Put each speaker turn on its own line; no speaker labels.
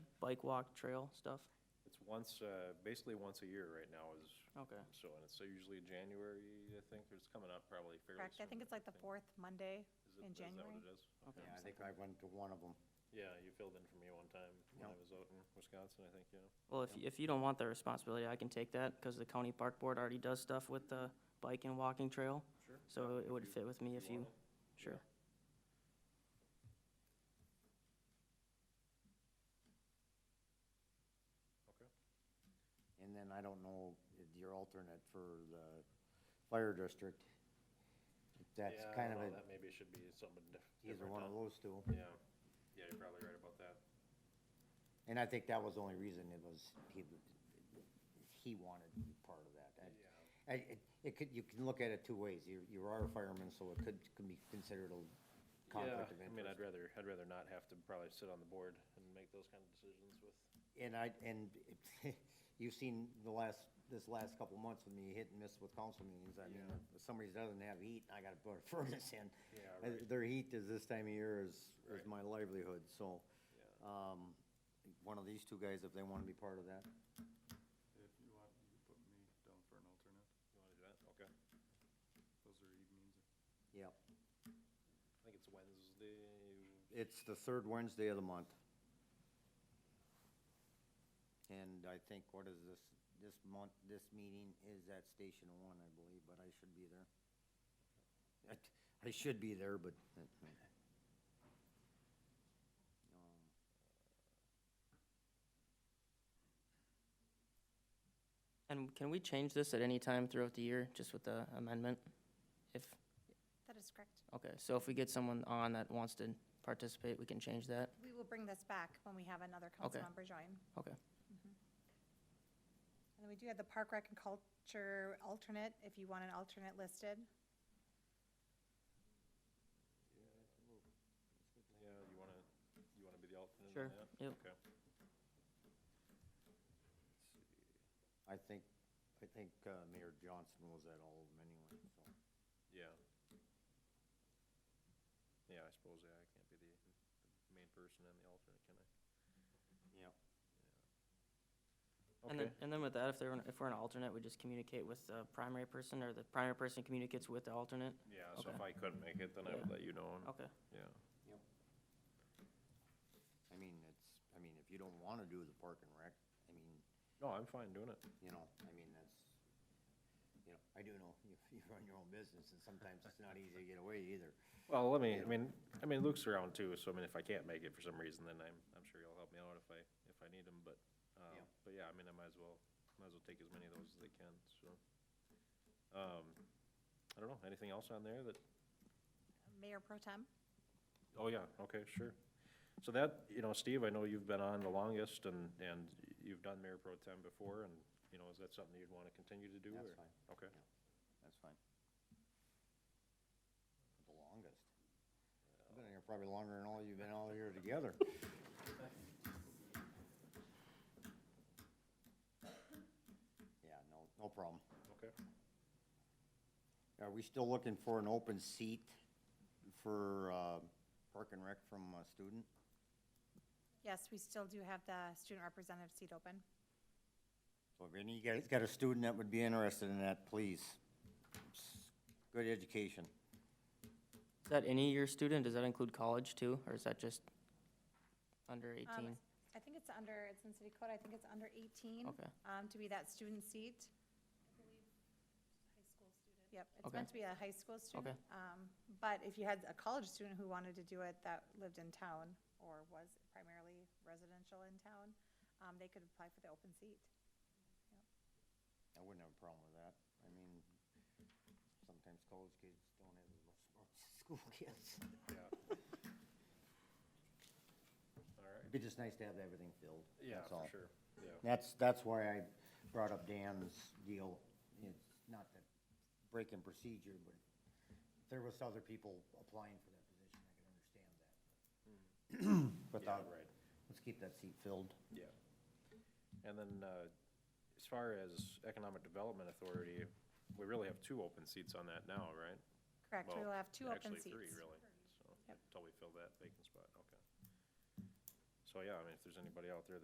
bike walk trail stuff?
It's once, uh, basically once a year right now is,
Oh, Okay.
so, and it's usually January, I think, it's coming up probably fairly
Correct, I
soon,
think it's like the fourth Monday
Is it- is that
in
what
January.
it is?
Okay.
Yeah, I think I went to one of them.
Yeah, you filled in for me one time when I
Yeah.
was out in Wisconsin, I think, yeah.
Well, if, if you don't want the responsibility, I can take that, because the county park board already does stuff with the bike and walking trail.
Sure.
So it would fit with me if you,
want it.
sure.
Okay.
And then I don't know if your alternate for the fire district. If That's
Yeah, I
kind of
don't
a,
know, That maybe should be something dif-
either
different.
one of
then.
those two.
Yeah, yeah, you're probably right about that.
And I think that was the only reason it was, he, he wanted part of that. I-
Yeah.
I, it, it could, you can look at it two ways. You, you are a fireman, so it could, could be considered a conflict
Yeah,
of
I
interest.
mean, I'd rather, I'd rather not have to probably sit on the board and make those kind of decisions with,
And I, and you've seen the last, this last couple of months with me hit and miss with council meetings, I mean,
Yeah.
if somebody doesn't have heat, I gotta put a furnace in.
Yeah,
Uh,
right.
Their heat is this time of year is,
Right.
is my livelihood, so,
yeah.
um, one of these two guys, if they wanna be part of that,
If you want, you can put me down for an alternate.
You wanna do that? Okay.
Those are evenings.
yep.
I think it's Wednesday,
It's the third Wednesday of the month. And I think, what is this, this month, this meeting is at Station One, I believe, but I should be there. I- I should be there, but. that- Um,
And can we change this at any time throughout the year, just with the amendment? If,
That is correct.
okay, so if we get someone on that wants to participate, we can change that?
We will bring this back when we have another council
Okay.
member join.
Okay.
And then we do have the Park Rec and Culture alternate, if you want an alternate listed.
Yeah, you wanna, you wanna be the alternate
Sure,
on that?
yep.
Okay.
I think, I think uh, Mayor Johnson was at all of them anyway, so.
Yeah. Yeah, I suppose, yeah, I can't be the, the main person and the alternate, can I?
Yep.
And
Okay.
then, and then with that, if they're, an- if we're an alternate, we just communicate with the primary person, or the primary person communicates with the alternate?
Yeah, so
Okay.
if I couldn't make it, then I would
Yeah.
let you know, and-
Okay,
yeah.
I mean, it's, I mean, if you don't wanna do the park and rec, I mean,
No, I'm fine doing it.
you know, I mean, that's, you know, I do know, you, you run your own business, and sometimes it's not easy to get away either.
Well, let me, I mean, I mean, Luke's around too, so I mean, if I can't make it for some reason, then I'm, I'm sure he'll help me out if I, if I need him, but, um,
Yeah.
but yeah, I mean, I might as well, might as well take as many of those as I can, so. Um, I don't know, anything else on there that
Mayor Pro Tem?
Oh, yeah, okay, sure. So that, you know, Steve, I know you've been on the longest and, and you've done mayor pro tem before and, you know, is that something you'd want to continue to do?
That's
or-
fine.
Okay,
That's fine. The longest. I've been here probably longer than all you've been all here together. Yeah, no, no problem.
okay.
Are we still looking for an open seat for, uh, park and rec from a student?
Yes, we still do have the student representative seat open.
So if any of you guys got a student that would be interested in that, please. It's Good education.
is that any year student, does that include college too, or is that just under
Um,
eighteen?
I think it's under, it's in city code, I think it's under eighteen.
Okay.
Um, to be that student seat. Yep, it's
Okay.
meant to be a high school student.
Okay.
Um, but if you had a college student who wanted to do it that lived in town or was primarily residential in town, um, they could apply for the open seat.
I wouldn't have a problem with that. I mean, sometimes college kids don't have as much smarts as school kids.
Yeah. All right,
It'd be just nice to have everything filled.
yeah,
that's
for
all.
sure, yeah,
That's, that's why I brought up Dan's deal. It's not that breaking procedure, but if there was other people applying for that position, I could understand that. Without,
right.
let's keep that seat filled.
yeah. And then, uh, as far as Economic Development Authority, we really have two open seats on that now, right?
Correct, we
Well,
will have two open
Actually, three,
seats.
really, so,
Yep.
until we fill that vacant spot, okay. So, yeah, I mean, if there's anybody out there that